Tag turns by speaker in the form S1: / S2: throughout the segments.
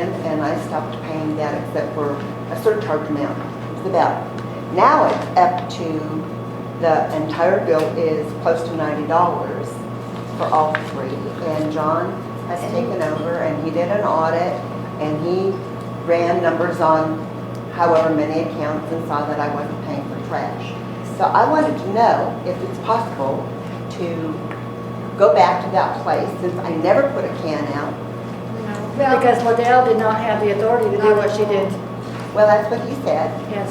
S1: and I stopped paying that except for a surcharge amount, it's about. Now it's up to, the entire bill is close to ninety dollars for all three. And John has taken over and he did an audit and he ran numbers on however many accounts and saw that I wasn't paying for trash. So I wanted to know if it's possible to go back to that place since I never put a can out
S2: Well,
S3: Because Liddell did not have the authority to do what she did.
S1: Well, that's what he said,
S3: Yes.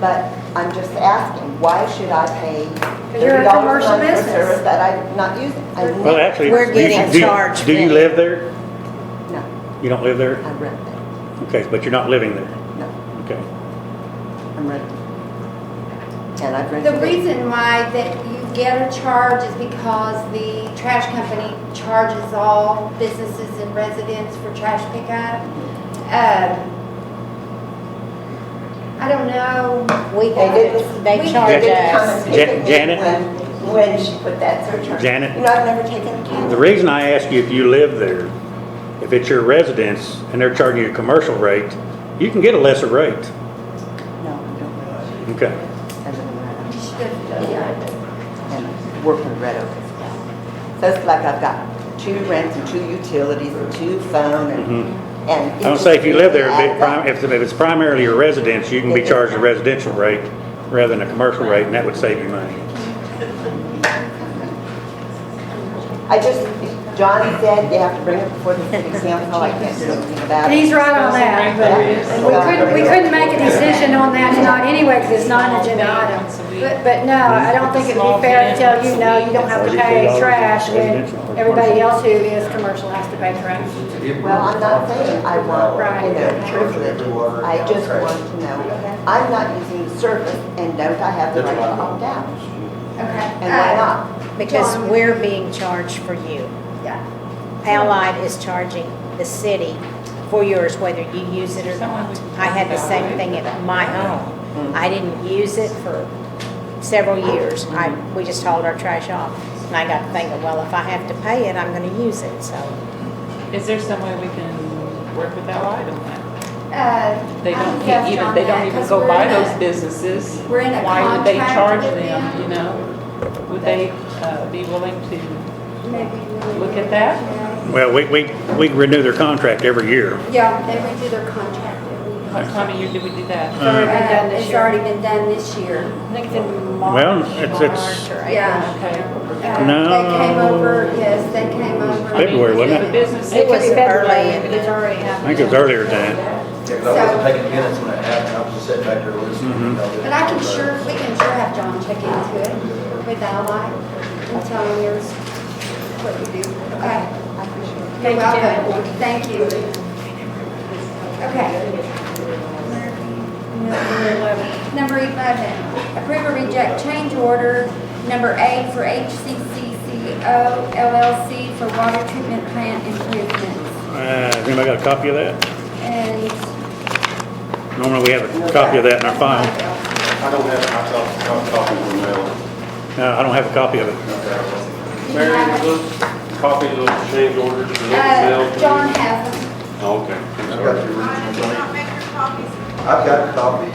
S1: but I'm just asking, why should I pay
S3: Because you're
S1: thirty
S3: a
S1: dollars
S3: commercial
S1: a month for
S3: business.
S1: service that I'm not using? I
S4: Well, actually.
S5: We're
S4: you
S5: getting
S4: should- do you-
S5: charged
S4: Do you
S5: fee.
S4: live there?
S1: No,
S4: You don't live there?
S1: I'm renting,
S4: Okay, but you're not living there,
S1: no,
S4: okay.
S1: I'm renting. And I've rented.
S2: the
S1: it.
S2: reason why that you get a charge is because the trash company charges all businesses and residents for trash pickup. Um, I don't know.
S5: We
S1: They
S5: did,
S1: didn't-
S5: they
S2: we-
S5: charge
S1: They didn't come and
S5: us.
S4: Ja-
S1: pick me
S4: Janet?
S1: When, when she put that surcharge.
S4: Janet?
S1: You know, I've never taken a can.
S4: The reason I ask you if you live there, if it's your residence and they're charging you a commercial rate, you can get a lesser rate,
S1: No, I don't realize it.
S4: okay?
S1: I live in Red Oak.
S2: You should go to the yard.
S1: and work in Red Oak as well. So it's like I've got two rents and two utilities and two phone and, and.
S4: Mm-hmm. I don't say if you live there, if it prim- if if it's primarily your residence, you can be charged a residential rate rather than a commercial rate, and that would save you money.
S1: I just, John said you have to bring it before the city council, I can't do anything about
S3: And
S1: it.
S3: he's right on that, but we couldn't, we couldn't make a decision on that tonight anyway, because it's not an agenda item. But, but no, I don't think it'd be fair to tell you, no, you don't have to pay trash when everybody else who is commercial has to pay trash.
S1: Well, I'm not saying I want, you know,
S3: Right.
S1: privilege, I just want to know, I'm not using the service and don't I have the right to opt out?
S2: Okay.
S1: And why not?
S5: Because we're being charged for you.
S2: Yeah.
S5: Allied is charging the city for yours, whether you use it or not. I had the same thing at my home. I didn't use it for several years. I, we just hauled our trash off. And I got to thinking, well, if I have to pay it, I'm gonna use it, so.
S6: Is there some way we can work with Allied on that?
S2: Uh,
S6: They
S2: I'm
S6: don't
S2: yes
S6: even,
S2: on
S6: they
S2: that,
S6: don't even
S2: 'cause
S6: go
S2: we're
S6: by
S2: in a-
S6: those businesses.
S2: we're in a
S6: Why would they
S2: contract
S6: charge
S2: with
S6: them,
S2: them.
S6: you know? Would they uh, be willing to,
S2: Maybe we-
S6: Look at that.
S4: Well, we, we, we renew their contract every year.
S2: Yeah, they redo their contract every year.
S6: what time of year do we do that?
S3: It's already been done
S2: Uh,
S3: this
S2: It's
S3: year.
S2: already been done this year.
S3: I think it's in March.
S4: Well, it's- it's-
S3: March or April.
S2: Yeah.
S6: Okay.
S2: Uh,
S4: No.
S2: They came over, yes, they came over.
S6: I mean,
S4: February, wasn't
S6: the
S4: it?
S6: business-
S5: It was
S3: Could be February,
S5: early.
S3: but It's already
S4: I
S3: happened.
S4: think it was earlier than that.
S7: Yeah, 'cause I wasn't taking minutes when it happened, I was just sitting back there listening. you
S8: Mm-hmm.
S7: know,
S2: But I can sure, we can sure have John check into it with Ally and tell him yours, what you do. Okay. You're
S3: Thank you, Janet.
S2: welcome. Thank you. Okay.
S3: Number 11.
S2: Number 11, approve or reject change order number eight for HCCCO LLC for water treatment plant improvements.
S4: Uh, has anybody got a copy of that?
S2: And
S4: Normally we have a copy of that in our file.
S8: I don't have, I thought, I thought it was mailed.
S4: No, I don't have a copy of it.
S8: Mary, look, copies of the change orders for mail. Oh,
S2: Uh, John has them.
S8: Okay. I'm
S7: I've
S8: sorry.
S7: got the originals. I've got copies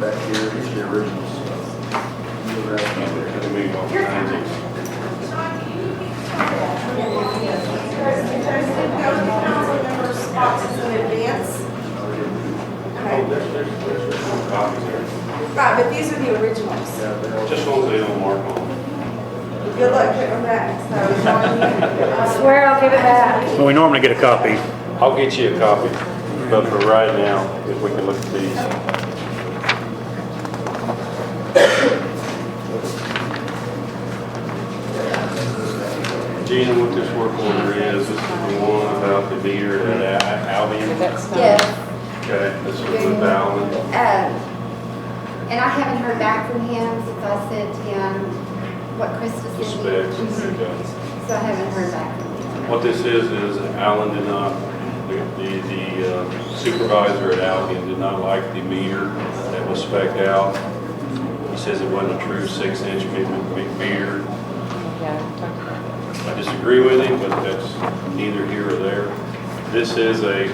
S7: back here, these are the originals. You're right.
S9: There's been no council member responses in advance.
S8: Oh, there's, there's, there's some copies there.
S9: Right, but these are the originals.
S7: Yeah, they're all-
S8: Just ones they don't mark on.
S9: Good luck putting them back, so. it's on
S3: I swear I'll give it back.
S4: Well, we normally get a copy.
S8: I'll get you a copy, but for right now, if we can look at these. Gina, what this work order is, this is the one about the beer at Albion.
S6: That's not-
S2: Yes.
S8: Okay, this is with Albion.
S2: Um, And I haven't heard back from him since I sent him what Chris was
S8: The
S2: giving
S8: specs and
S2: me.
S8: everything.
S2: So I haven't heard back from him.
S8: What this is, is Allen did not, the- the the uh, supervisor at Allen did not like the meter that was spec'd out. He says it wasn't a true six-inch meter. I disagree with him, but that's neither here or there. This is a